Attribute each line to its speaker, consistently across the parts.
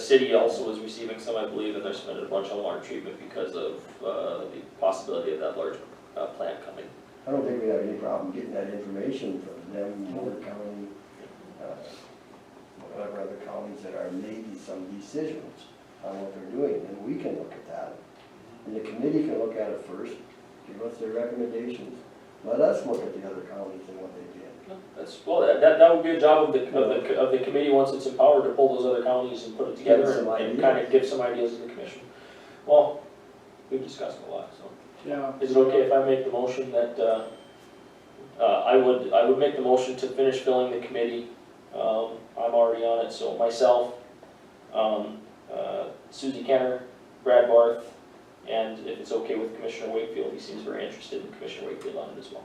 Speaker 1: city also is receiving some, I believe, and they're spending a bunch on water treatment because of, uh, the possibility of that large, uh, plant coming.
Speaker 2: I don't think we have any problem getting that information from them, Moore County, uh, whatever other counties that are making some decisions on what they're doing, and we can look at that. And the committee can look at it first, give us their recommendations, let us look at the other counties and what they did.
Speaker 1: That's, well, that, that that would be a job of the, of the, of the committee, once it's empowered, to pull those other counties and put it together and
Speaker 2: some
Speaker 1: and kind of give some ideas to the commission. Well, we've discussed a lot, so.
Speaker 3: Yeah.
Speaker 1: Is it okay if I make the motion that, uh, uh, I would, I would make the motion to finish filling the committee. Um, I'm already on it, so myself, um, uh, Suzie Kenner, Brad Barth, and if it's okay with Commissioner Wakefield, he seems very interested in Commissioner Wakefield on it as well.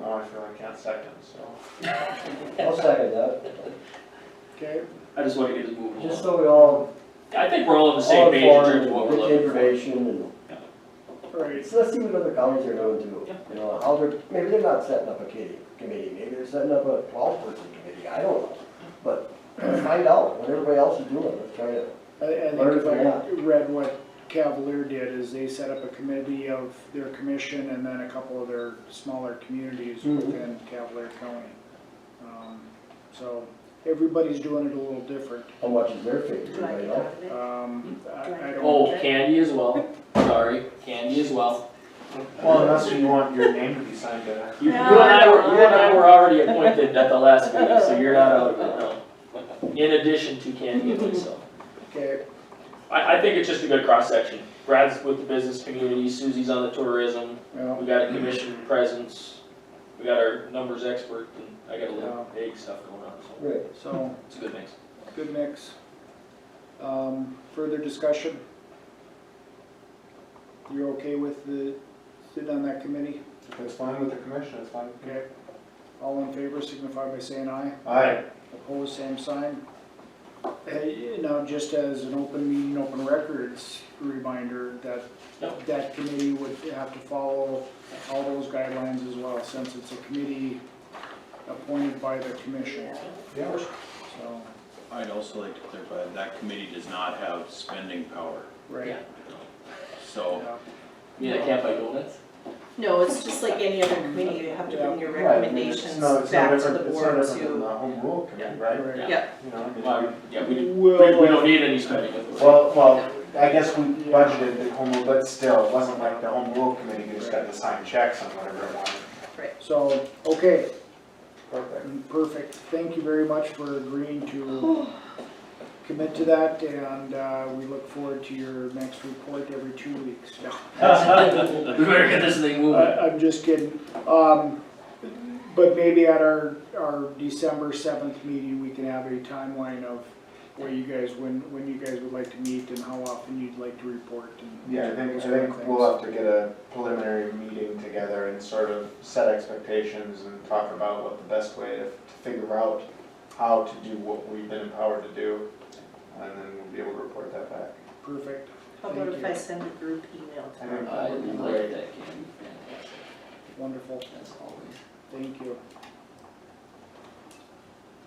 Speaker 4: No, I feel I can't second, so.
Speaker 2: I'll second that,
Speaker 3: Okay,
Speaker 1: I just want to get it moving
Speaker 2: just
Speaker 1: along.
Speaker 2: so we all,
Speaker 1: I think we're all on the same
Speaker 2: all
Speaker 1: page in
Speaker 2: informed,
Speaker 1: terms of what we're
Speaker 2: get
Speaker 1: looking for.
Speaker 2: information, and,
Speaker 3: all right,
Speaker 2: so let's see what other counties are doing too. You know, how they're, maybe they're not setting up a kitty, committee, maybe they're setting up a twelve-person committee, I don't know. But find out what everybody else is doing, let's try to
Speaker 3: I, I think
Speaker 2: Learn
Speaker 3: if
Speaker 2: from
Speaker 3: I
Speaker 2: that.
Speaker 3: read what Cavalier did, is they set up a committee of their commission and then a couple of their smaller communities
Speaker 1: Mm-hmm.
Speaker 2: Mhm.
Speaker 3: within Cavalier County. Um, So, everybody's doing it a little different.
Speaker 2: How much is their figure,
Speaker 5: Do I
Speaker 2: anybody
Speaker 5: get
Speaker 2: know?
Speaker 5: out of it?
Speaker 3: Um, I, I don't,
Speaker 1: Oh, Candy as well, sorry, Candy as well.
Speaker 4: Well, unless you want your name to be signed to.
Speaker 1: You, you and I were, you and I were already appointed at the last meeting, so you're not out of it, no. In addition to Candy and myself.
Speaker 3: okay,
Speaker 1: I, I think it's just a good cross-section. Brad's with the business community, Susie's on the tourism,
Speaker 3: well,
Speaker 1: we got a commission presence, we got our numbers expert, and I got a little egg stuff going on, so
Speaker 2: Right,
Speaker 3: so.
Speaker 1: it's a good mix.
Speaker 3: Good mix. Um, further discussion? You're okay with the, sit on that committee?
Speaker 4: If it's fine with the commission, it's fine.
Speaker 3: Okay. All in favor signify by saying aye.
Speaker 4: Aye.
Speaker 3: Opposed, same sign. Hey, now, just as an open meeting, open records reminder that
Speaker 1: Yep.
Speaker 3: that committee would have to follow all those guidelines as well, since it's a committee appointed by the commission,
Speaker 4: Yeah.
Speaker 3: so,
Speaker 6: I'd also like to clarify, that committee does not have spending power,
Speaker 3: right?
Speaker 1: Yeah.
Speaker 6: so
Speaker 3: Yeah.
Speaker 1: Yeah, I can't buy donuts.
Speaker 5: No, it's just like any other committee, you have to bring your recommendations
Speaker 4: It's no- it's no
Speaker 5: back to
Speaker 4: different-
Speaker 5: the board
Speaker 4: It's no different than the
Speaker 5: to.
Speaker 4: home rule committee, right?
Speaker 3: Right.
Speaker 5: Yeah,
Speaker 4: You know, I mean,
Speaker 1: Well, yeah, we, we we
Speaker 3: Well,
Speaker 1: don't need any spending authority.
Speaker 4: Well, well, I guess we budgeted the home rule, but still, it wasn't like the home rule committee, who just got to sign checks on whatever it wanted.
Speaker 3: So, okay,
Speaker 4: Perfect.
Speaker 3: perfect. Thank you very much for agreeing to commit to that, and uh, we look forward to your next report every two weeks. No,
Speaker 1: We better get this thing moving.
Speaker 3: I- I'm just kidding. Um, But maybe at our, our December seventh meeting, we can have a timeline of where you guys, when, when you guys would like to meet and how often you'd like to report and.
Speaker 4: Yeah, I think, I
Speaker 3: those kind of
Speaker 4: think we'll have to get a preliminary meeting together and sort of set expectations and talk about what the best way to to figure out how to do what we've been empowered to do, and then we'll be able to report that back.
Speaker 3: things. Perfect.
Speaker 5: how about
Speaker 3: Thank
Speaker 5: if
Speaker 3: you.
Speaker 5: I send a group email to
Speaker 4: I
Speaker 5: her?
Speaker 4: think that would be great.
Speaker 1: that candy, fantastic,
Speaker 3: Wonderful.
Speaker 1: as always.
Speaker 3: Thank you.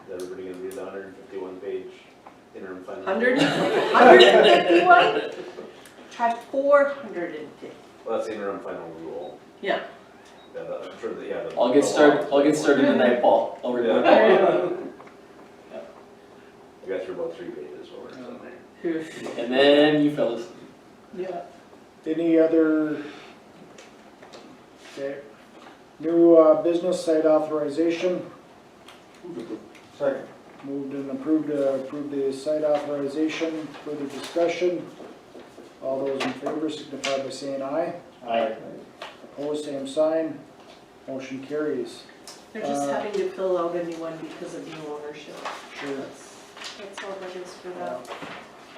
Speaker 7: Is everybody gonna read the hundred and fifty-one page interim financial?
Speaker 5: Hundred, hundred and fifty-one? Try four hundred and fifty.
Speaker 7: Well, that's the interim final rule.
Speaker 5: Yeah.
Speaker 7: Yeah, that, I'm sure that, yeah. the-
Speaker 1: I'll get
Speaker 7: the
Speaker 1: started,
Speaker 7: law.
Speaker 1: I'll get started tonight, Paul. I'll report.
Speaker 7: Yeah. I got through about three pages over, so.
Speaker 1: And then you fellas.
Speaker 5: Yeah.
Speaker 3: Any other, okay, new uh, business site authorization,
Speaker 4: Second.
Speaker 3: moved and approved to approve the site authorization, further discussion. All those in favor signify by saying aye.
Speaker 4: Aye.
Speaker 3: Opposed, same sign, motion carries.
Speaker 5: They're just
Speaker 3: Uh,
Speaker 5: having to fill out a new one because of new ownership.
Speaker 3: Sure.
Speaker 5: That's, that's all that is for that.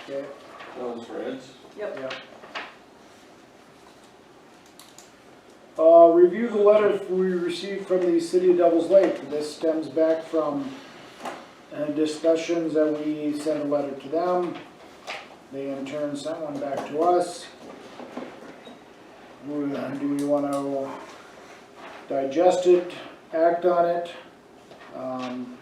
Speaker 3: Okay,
Speaker 4: Those reds.
Speaker 3: yeah. Uh, review the letter we received from the city of Devils Lake. This stems back from uh, discussions that we sent a letter to them. They in turn sent one back to us. We- uh, Do we want to digest it, act on it? Um,